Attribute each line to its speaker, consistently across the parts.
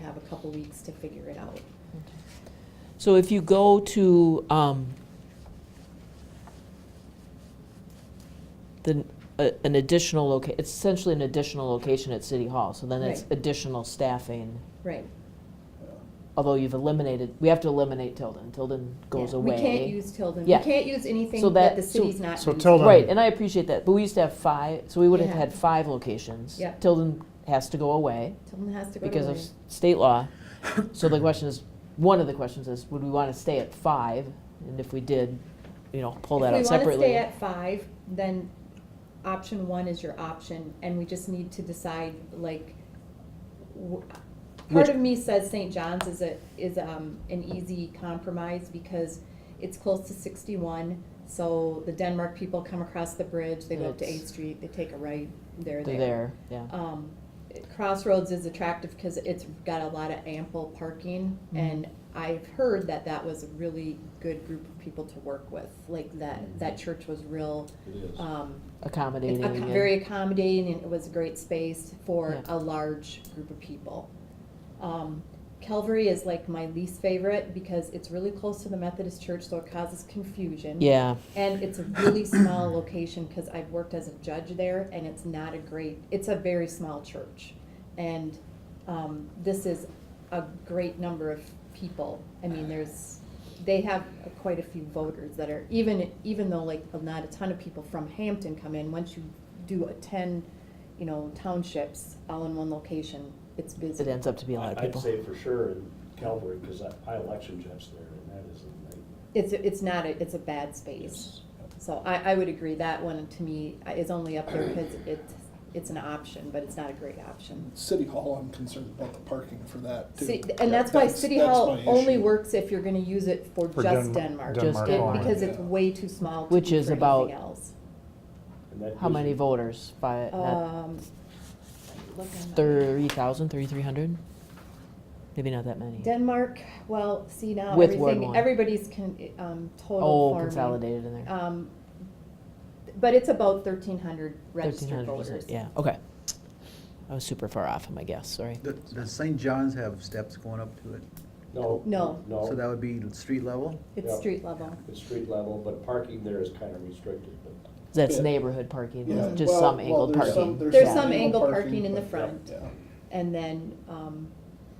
Speaker 1: have a couple weeks to figure it out.
Speaker 2: So if you go to, um, the, a- an additional loca, it's essentially an additional location at City Hall, so then it's
Speaker 1: Right.
Speaker 2: additional staffing.
Speaker 1: Right.
Speaker 2: Although you've eliminated, we have to eliminate Tilden, Tilden goes
Speaker 1: Yeah.
Speaker 2: away.
Speaker 1: We can't use Tilden, we
Speaker 2: Yeah.
Speaker 1: can't use anything
Speaker 2: So
Speaker 1: that
Speaker 2: that-
Speaker 1: the
Speaker 2: so-
Speaker 1: city's not
Speaker 3: So
Speaker 1: using.
Speaker 3: Tilden-
Speaker 2: Right, and I appreciate that, but we used to have five, so we would have
Speaker 1: Yeah.
Speaker 2: had five locations.
Speaker 1: Yeah.
Speaker 2: Tilden has to go away
Speaker 1: Tilden has to go to
Speaker 2: because of
Speaker 1: Lorraine.
Speaker 2: s- state law. So the question is, one of the questions is, would we want to stay at five? And if we did, you know, pull that out
Speaker 1: If we wanna stay
Speaker 2: separately.
Speaker 1: at five, then option one is your option, and we just need to decide, like, w- part
Speaker 2: Which-
Speaker 1: of me says St. John's is a, is, um, an easy compromise, because it's close to sixty-one, so the Denmark people come across the bridge, they go up to
Speaker 2: It's-
Speaker 1: Eighth Street, they take a right, they're
Speaker 2: They're there, yeah.
Speaker 1: um, Crossroads is attractive because it's got a lot of ample parking,
Speaker 2: Mm-hmm.
Speaker 1: and I've heard that that was a really good group of people to work with. Like that, that church was real,
Speaker 4: It is.
Speaker 2: Uh,
Speaker 1: um,
Speaker 2: Mm-hmm. Accommodating.
Speaker 1: acco-
Speaker 2: and-
Speaker 1: very accommodating, and it was a great space for
Speaker 2: Yeah.
Speaker 1: a large group of people. Um, Calvary is like my least favorite because it's really close to the Methodist church, so it causes confusion.
Speaker 2: Yeah,
Speaker 1: And it's a really small location because I've worked as a judge there and it's not a great, it's a very small church. And um, this is a great number of people. I mean, there's, they have quite a few voters that are, even, even though like not a ton of people from Hampton come in, once you do attend, you know, townships all in one location, it's busy.
Speaker 2: it ends up to be a lot of
Speaker 4: I'd
Speaker 2: people.
Speaker 4: say for sure in Calvary, because I election judge there, and that is a nightmare.
Speaker 1: It's, it's not, a it's a bad space. So I, I would agree, that one to me is only up there because it's, it's an option, but it's not a great option.
Speaker 5: City Hall, I'm concerned about the parking for that too.
Speaker 1: See, and that's why City
Speaker 5: that's
Speaker 1: Hall
Speaker 5: my
Speaker 1: only
Speaker 5: issue.
Speaker 1: works if you're gonna use it for
Speaker 3: For
Speaker 1: just
Speaker 3: Den-
Speaker 1: Denmark.
Speaker 2: Denmark
Speaker 1: It-
Speaker 2: only.
Speaker 1: Because it's
Speaker 5: Yeah.
Speaker 1: way too small to
Speaker 2: Which
Speaker 1: be
Speaker 2: is
Speaker 1: for
Speaker 2: about-
Speaker 1: anything else.
Speaker 4: And that
Speaker 2: How many
Speaker 4: usually-
Speaker 2: voters? Five,
Speaker 1: Um, look on that.
Speaker 2: thirty thousand, thirty-three hundred? Maybe not that many.
Speaker 1: Denmark, well, see now,
Speaker 2: With Ward
Speaker 1: everything,
Speaker 2: one.
Speaker 1: everybody's con, um, total
Speaker 2: Oh,
Speaker 1: farming.
Speaker 2: consolidated in there.
Speaker 1: Um, but it's about thirteen hundred registered
Speaker 2: 1,300 was
Speaker 1: voters.
Speaker 2: it? Yeah, okay. I was super far off on my guess, sorry.
Speaker 6: Does- Does St. John's have steps going up to it?
Speaker 4: No.
Speaker 1: No.
Speaker 6: So that
Speaker 4: No,
Speaker 6: would be street level?
Speaker 1: It's
Speaker 4: Yeah.
Speaker 1: street level.
Speaker 4: it's street level, but parking there is kind of restricted, but
Speaker 2: That's
Speaker 5: Yeah.
Speaker 2: neighborhood parking,
Speaker 5: Yeah,
Speaker 2: just
Speaker 5: well-
Speaker 2: some
Speaker 5: well,
Speaker 2: angled
Speaker 5: there's some-
Speaker 2: parking.
Speaker 1: There's
Speaker 2: Yeah.
Speaker 1: some angled parking in the
Speaker 5: but-
Speaker 1: front.
Speaker 5: yeah.
Speaker 1: and then, um,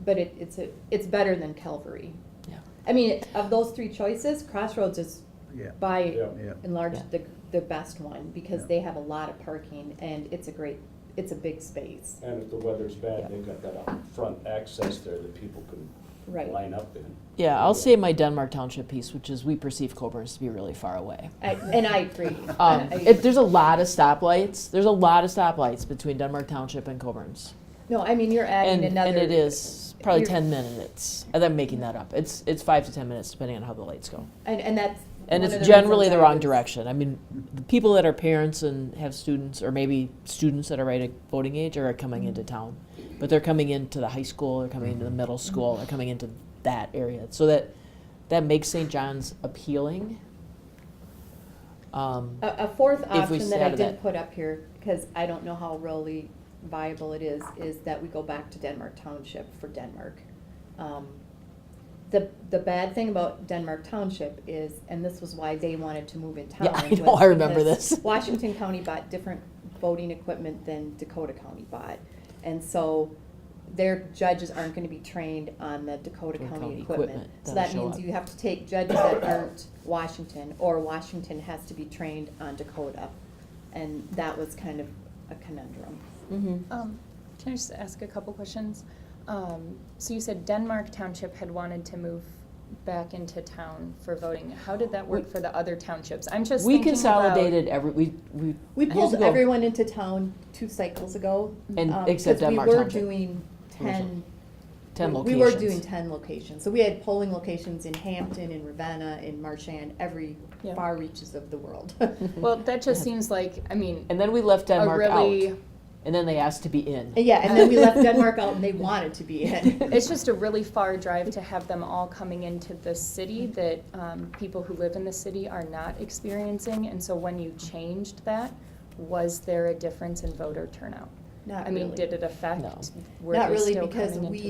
Speaker 1: but it, it's a, it's better than Calvary.
Speaker 2: Yeah.
Speaker 1: I mean, of those three choices, Crossroads is
Speaker 6: Yeah,
Speaker 1: by
Speaker 4: Yeah.
Speaker 6: yeah.
Speaker 1: and large
Speaker 2: Yeah.
Speaker 1: the, the best one, because
Speaker 6: Yeah.
Speaker 1: they have a lot of parking and it's a great, it's a big space.
Speaker 4: And if the weather's
Speaker 2: Yeah.
Speaker 4: bad, they've got that out front access there that people can
Speaker 1: Right.
Speaker 4: line up in.
Speaker 2: Yeah, I'll say my Denmark Township piece, which is we perceive Coburn's to be really far away.
Speaker 1: I, and I agree.
Speaker 2: Um,
Speaker 1: I- I-
Speaker 2: it, there's a lot of stoplights, there's a lot of stoplights between Denmark Township and Coburn's.
Speaker 1: No, I mean, you're adding
Speaker 2: And,
Speaker 1: another.
Speaker 2: and it is probably
Speaker 1: you're-
Speaker 2: ten minutes, and I'm making that up, it's, it's five to ten minutes depending on how the lights go.
Speaker 1: And, and that's.
Speaker 2: And
Speaker 1: one of
Speaker 2: it's
Speaker 1: reasons
Speaker 2: generally the
Speaker 1: I
Speaker 2: wrong
Speaker 1: was-
Speaker 2: direction. I mean, the people that are parents and have students, or maybe students that are right at voting age, are coming into
Speaker 1: Mm-hmm.
Speaker 2: town. But they're coming into the high school, they're coming into the middle
Speaker 1: Mm-hmm.
Speaker 2: school, they're coming into that area. So that that makes St. John's appealing. Um,
Speaker 1: A, a fourth
Speaker 2: we
Speaker 1: option that I
Speaker 2: started
Speaker 1: did
Speaker 2: it.
Speaker 1: put up here, because I don't know how really viable it is, is that we go back to Denmark Township for Denmark. Um, The, the bad thing about Denmark Township is, and this was why they wanted to move in town.
Speaker 2: Yeah, I know,
Speaker 1: was
Speaker 2: I remember
Speaker 1: because
Speaker 2: this.
Speaker 1: Washington County bought different voting equipment than Dakota County bought. And so their judges aren't gonna be trained on the Dakota
Speaker 2: Dakota
Speaker 1: County
Speaker 2: County
Speaker 1: equipment.
Speaker 2: equipment
Speaker 1: So
Speaker 2: that'll
Speaker 1: that
Speaker 2: show
Speaker 1: means
Speaker 2: up.
Speaker 1: you have to take judges that aren't Washington, or Washington has to be trained on Dakota. And that was kind of a conundrum.
Speaker 7: Um, Can I just ask a couple questions? Um, So you said Denmark Township had wanted to move back into town for voting. How did that work
Speaker 2: We-
Speaker 7: for the other townships? I'm just
Speaker 2: we
Speaker 7: thinking about-
Speaker 2: consolidated every we we
Speaker 1: We
Speaker 2: years
Speaker 1: pulled
Speaker 2: ago,
Speaker 1: everyone into town two cycles ago.
Speaker 2: and
Speaker 1: um,
Speaker 2: except
Speaker 1: 'cause
Speaker 2: Denmark
Speaker 1: We were
Speaker 2: Township,
Speaker 1: doing ten.
Speaker 2: ten
Speaker 1: we- We
Speaker 2: locations.
Speaker 1: were doing ten locations. So we had polling locations in Hampton, in Ravenna, in Marchand, every
Speaker 7: Yeah.
Speaker 1: far reaches of the world.
Speaker 7: Well, that just seems like, I mean,
Speaker 2: and then we left
Speaker 7: a
Speaker 2: Denmark
Speaker 7: really,
Speaker 2: out, and then they asked to be in.
Speaker 1: Yeah, and then we left Denmark out and they wanted to be in.
Speaker 7: it's just a really far drive to have them all coming into the city that um, people who live in the city are not experiencing. And so when you changed that, was there a difference in voter turnout?
Speaker 1: Not
Speaker 7: I mean,
Speaker 1: really.
Speaker 7: did it affect?
Speaker 2: No.
Speaker 7: were
Speaker 1: Not
Speaker 7: they
Speaker 1: really,
Speaker 7: still
Speaker 1: because
Speaker 7: coming into
Speaker 1: we